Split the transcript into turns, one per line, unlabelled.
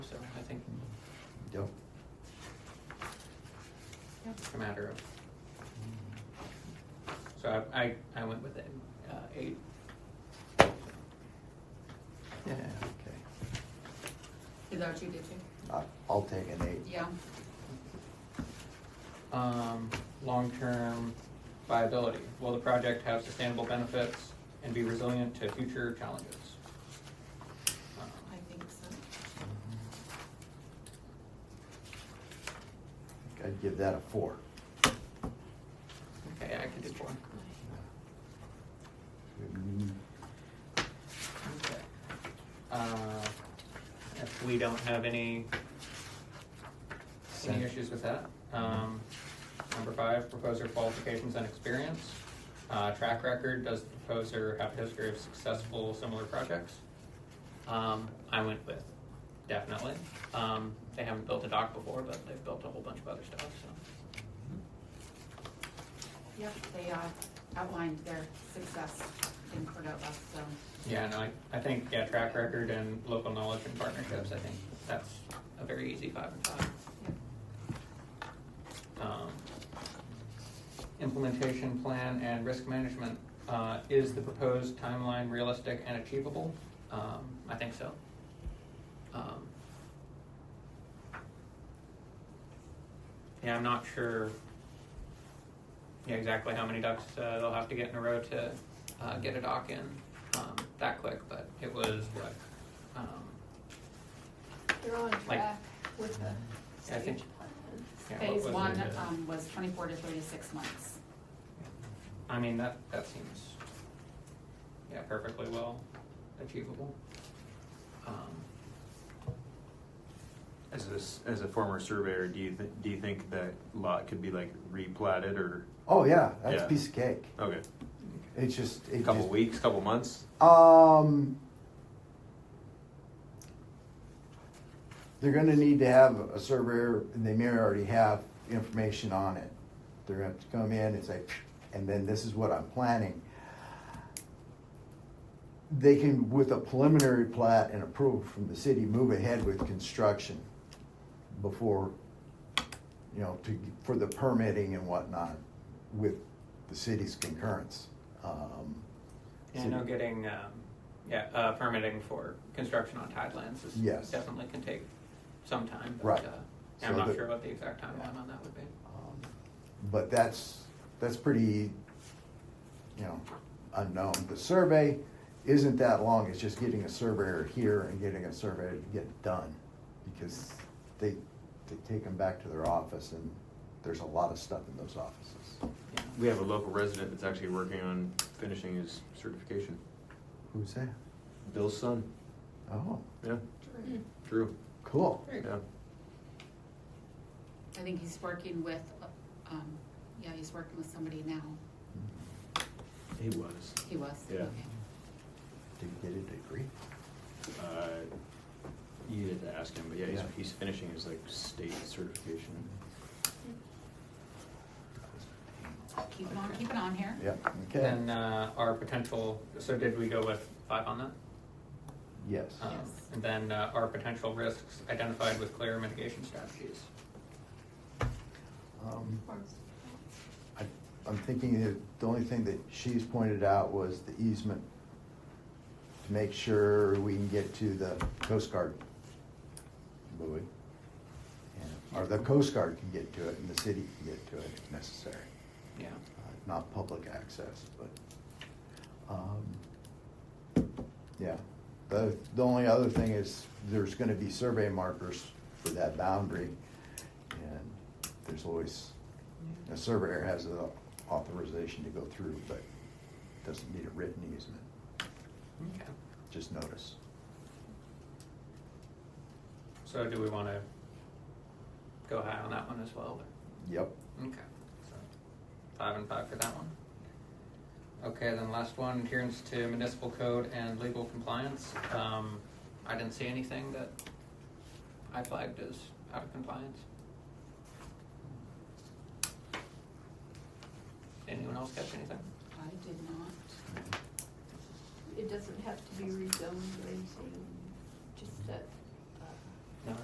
matter of. So I, I, I went with it, uh, eight.
Yeah, okay.
Is that what you did too?
I- I'll take an eight.
Yeah.
Um, long-term viability, will the project have sustainable benefits and be resilient to future challenges? Um,
I think so.
I'd give that a four.
Okay, I can do four.
Mm,
Okay. Uh, If we don't have any, any
Sen-
issues with that. Um, Number five, proposer qualifications and experience. Uh, Track record, does the proposer have a history of successful similar projects? Um, I went with definitely. Um, They haven't built a dock before, but they've built a whole bunch of other stuff, so.
Yep, they uh, outlined their success in Cordova, so.
Yeah, no, I, I think, yeah, track record and local knowledge and partnerships, I think that's a very easy five and five.
yep.
um, implementation plan and risk management. Uh, Is the proposed timeline realistic and achievable? Um, I think so. Um, Yeah, I'm not sure, yeah, exactly how many ducks uh, they'll have to get in a row to uh, get a dock in um, that quick, but it was what? um,
They're on
Like-
track with the
I think-
stage plan.
yeah, what
Phase
was
one
it? uh,
um, was twenty-four to thirty-six months.
I mean, that, that seems, yeah, perfectly well achievable. Um,
As a, s- as a former surveyor, do you, th- do you think that lot could be like replatted or,
Oh, yeah, that's a
Yeah.
piece of cake.
okay,
It's just.
a
it
couple
just-
weeks, couple months?
Um, they're gonna need to have a surveyor, and they may already have information on it. They're gonna have to come in and say, and then this is what I'm planning. They can, with a preliminary plat and approval from the city, move ahead with construction before, you know, to, for the permitting and whatnot with the city's concurrence. Um,
Yeah, I know getting, um, yeah, uh, permitting for construction on tidelands is
Yes.
definitely can take some time. but,
Right.
uh, yeah, I'm
So
not
the-
sure what the exact timeline
Yeah.
on that would be.
Um, But that's, that's pretty, you know, unknown. The survey isn't that long, it's just getting a surveyor here and getting a surveyor to get it done. Because they, they take them back to their office and there's a lot of stuff in those offices.
Yeah.
We have a local resident that's actually working on finishing his certification.
Who's that?
Bill's son,
Oh,
yeah,
Mm.
Drew,
cool.
Very
yeah.
good.
I think he's working with, um, yeah, he's working with somebody now.
He was.
He was.
Yeah.
okay.
Did you get a degree?
Uh, You had to ask him, but yeah, he's,
Yeah.
he's finishing his like state certification.
Mm-hmm.
Keep on, keep it on here.
Yeah, okay,
Then, uh, our potential, so did we go with five on that?
yes.
Um,
Yes.
And then, uh, our potential risks identified with clear mitigation strategies.
Um,
Or-
I- I'm thinking that the only thing that she's pointed out was the easement to make sure we can get to the Coast Guard buoy. And- Or the Coast Guard can get to it and the city can get to it if necessary.
Yeah,
Uh, Not public access, but, um, yeah. The, the only other thing is there's gonna be survey markers for that boundary. And there's always a surveyor has the authorization to go through, but doesn't need a written easement,
okay.
just notice.
So do we wanna go high on that one as well, or?
Yep.
Okay, so five and five for that one. Okay, then last one, adherence to municipal code and legal compliance. Um, I didn't see anything that I flagged as out of compliance. Anyone else catch anything?
I did not.
It doesn't have to be rezoned or anything. uh,